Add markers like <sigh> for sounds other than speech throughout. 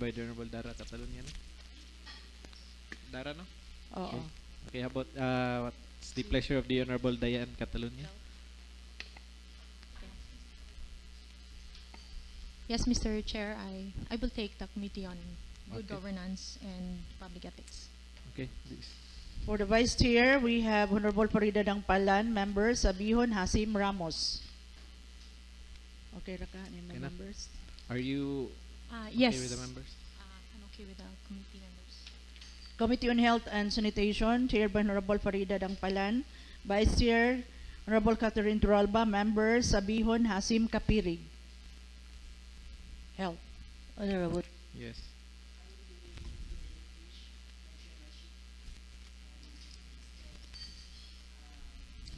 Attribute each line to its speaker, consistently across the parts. Speaker 1: by the Honorable Dara Catalonia, no? Dara, no?
Speaker 2: Oo.
Speaker 1: Okay, how about, uh, what's the pleasure of the Honorable Diane Catalonia?
Speaker 3: Yes, Mr. Chair, I, I will take the Committee on Good
Speaker 1: Okay.
Speaker 3: Governance and Public Ethics.
Speaker 1: Okay, this-
Speaker 2: For the Vice Chair, we have Honorable Farida Dangpalan, members, Abihon Hasim Ramos. Okay, Raka, any
Speaker 1: Okay
Speaker 2: mga
Speaker 1: na.
Speaker 2: members?
Speaker 1: are you
Speaker 3: Uh, yes.
Speaker 1: okay with the members?
Speaker 3: Uh, I'm okay with the committee members.
Speaker 2: Committee on Health and Sanitation, chaired by Honorable Farida Dangpalan. Vice Chair, Honorable Catherine Turalba, members, Abihon Hasim Kapirig. Health.
Speaker 4: Honorable,
Speaker 1: Yes.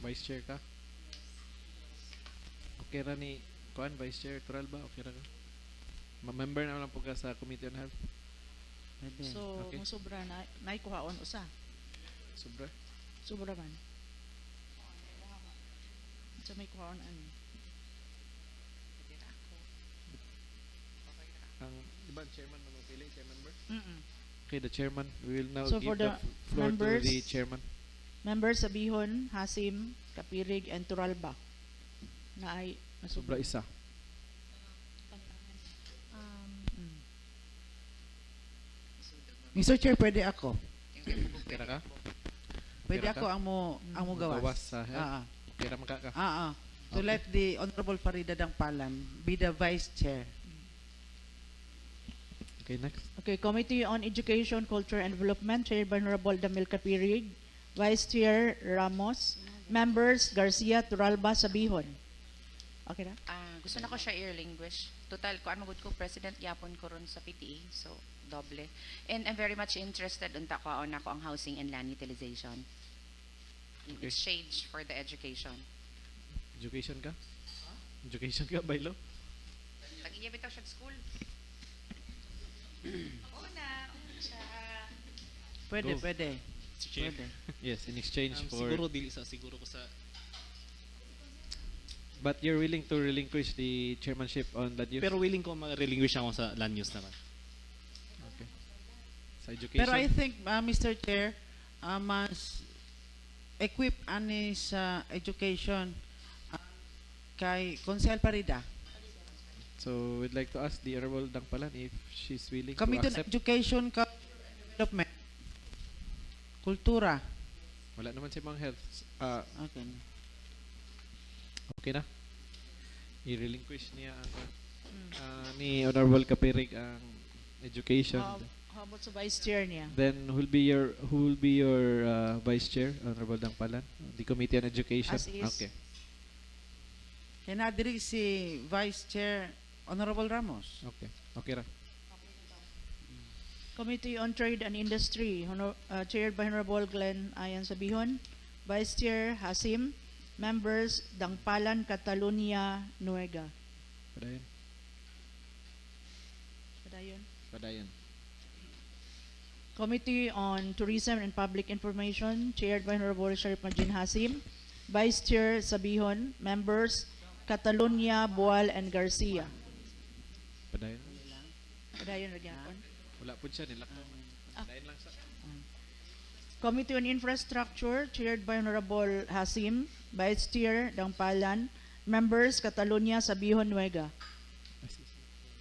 Speaker 1: Vice Chair ka? Okay ra ni Kuan Vice Chair Tural ba? Okay ra ka? Ma-member na lang po ka sa Committee on Health.
Speaker 2: So,
Speaker 1: Okay.
Speaker 2: mo sobra na, naikuhaon usa.
Speaker 1: Sobra.
Speaker 2: Sobra man. Sa may kuhaon an.
Speaker 1: Ang iba chairman na mapili, chairman member.
Speaker 2: Mm-mm.
Speaker 1: Okay, the chairman. We will now
Speaker 2: So
Speaker 1: give
Speaker 2: for
Speaker 1: the,
Speaker 2: the
Speaker 1: f- floor to the
Speaker 2: members-
Speaker 1: chairman.
Speaker 2: Members Abihon, Hasim, Kapirig, and Turalba. Na ay
Speaker 1: Sobra
Speaker 2: nasobra.
Speaker 1: isa.
Speaker 3: Um,
Speaker 2: Mm.
Speaker 4: Mr. Chair, pwede ako.
Speaker 1: Okay ra ka?
Speaker 4: Pwede
Speaker 1: Pwede
Speaker 4: ako
Speaker 1: ka? Mm.
Speaker 4: ang mo ang mo gawas.
Speaker 1: Gawas sa health.
Speaker 4: Ah,
Speaker 1: Okay ra maka ka?
Speaker 4: ah. ah, ah. To
Speaker 1: Okay.
Speaker 4: let the Honorable Farida Dangpalan be the Vice Chair.
Speaker 1: Okay, next.
Speaker 2: Okay, Committee on Education, Culture, and Development, chaired by Honorable Damil Kapirig, Vice Chair Ramos, Members Garcia, Turalba, Sabihon. Okay na?
Speaker 5: Ah, gusto na ko siya i-relinquish. Total, ko magud ko president yapon ko ron sa PTA, so doble. And I'm very much interested unta ko na ko ang housing and land utilization in
Speaker 1: Okay.
Speaker 5: exchange for the education.
Speaker 1: Education ka? Education ka, by <laughs> law?
Speaker 5: Nag-iya bitaw siya sa school. Una, una siya.
Speaker 4: Pwede,
Speaker 1: Go.
Speaker 4: pwede.
Speaker 6: Si Chair,
Speaker 4: Pwede.
Speaker 1: Yes, in exchange
Speaker 6: um,
Speaker 1: for...
Speaker 6: siguro dili sa siguro ko sa
Speaker 1: But you're willing to relinquish the chairmanship on that use?
Speaker 6: Pero willing ko ma-relinquish ako sa land use naman.
Speaker 1: okay. Sa education?
Speaker 4: Pero I think, ah, Mr. Chair, ah, mas equip ani sa education ah, kay Consel Farida.
Speaker 1: so we'd like to ask the Honorable Dangpalan if she's willing
Speaker 4: Committee
Speaker 1: to
Speaker 4: on
Speaker 1: accept.
Speaker 4: Education, Culture, and Development. Kultura.
Speaker 1: Wala naman si Mang Health. Ah,
Speaker 4: Okay.
Speaker 1: okay na. I-relinquish niya ang ah, ni Honorable Kapirig ang education.
Speaker 2: How, Um, how about sa Vice Chair niya?
Speaker 1: Then who'll be your who'll be your uh, vice chair, Honorable Dangpalan? The Committee on Education.
Speaker 2: As is.
Speaker 1: Okay.
Speaker 4: Kaya na diri si Vice Chair Honorable Ramos.
Speaker 1: Okay. Okay ra.
Speaker 2: Committee on Trade and Industry, honor, uh, chaired by Honorable Glenn Ayan Sabihon, Vice Chair Hasim, members Dangpalan, Catalonia, Nuega.
Speaker 1: Padayon.
Speaker 2: Padayon.
Speaker 1: Padayon.
Speaker 2: Committee on Tourism and Public Information, chaired by Honorable Sharif Majin Hasim, Vice Chair Sabihon, members Catalonia, Boal, and Garcia.
Speaker 1: Padayon.
Speaker 2: Padayon ra gyapon.
Speaker 1: Wala po siya nilak.
Speaker 2: Ah.
Speaker 1: Padayon lang sa.
Speaker 2: Committee on Infrastructure, chaired by Honorable Hasim, Vice Chair Dangpalan, members Catalonia, Sabihon, Nuega. Ah.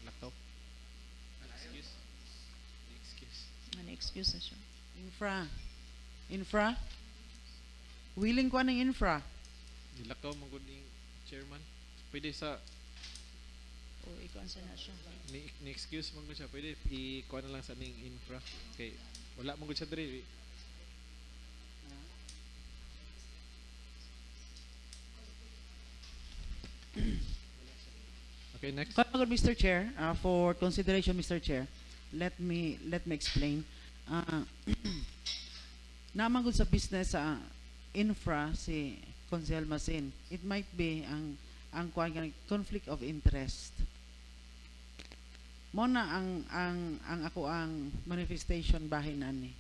Speaker 1: Laptop. Excuse. Excuse.
Speaker 2: Ano excuse na siya?
Speaker 4: Infra. Infra. Willing ko ng infra.
Speaker 1: Nilakaw mo gud ning chairman. Pwede sa
Speaker 2: O ikaw sa na siya.
Speaker 1: ni, ni excuse mo gud siya. Pwede i kuha na lang sa ning infra. Okay. Wala mo gud siya diri. <clears throat> Okay, next.
Speaker 4: Kagod, Mr. Chair, uh, for consideration, Mr. Chair, let me let me explain. <clears throat> Uh, namangod sa business ah, sa infra si Consel Masin. It might be ang ang kuwan nga, conflict of interest. Mo na ang ang ang ako ang manifestation bahin ani.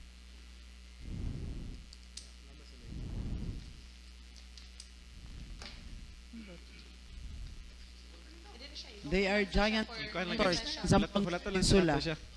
Speaker 4: They are giant
Speaker 1: Kuha na lang
Speaker 4: Tor,
Speaker 1: gid.
Speaker 4: Zampang
Speaker 1: Wala to lang
Speaker 4: Insula.
Speaker 1: Wala to siya.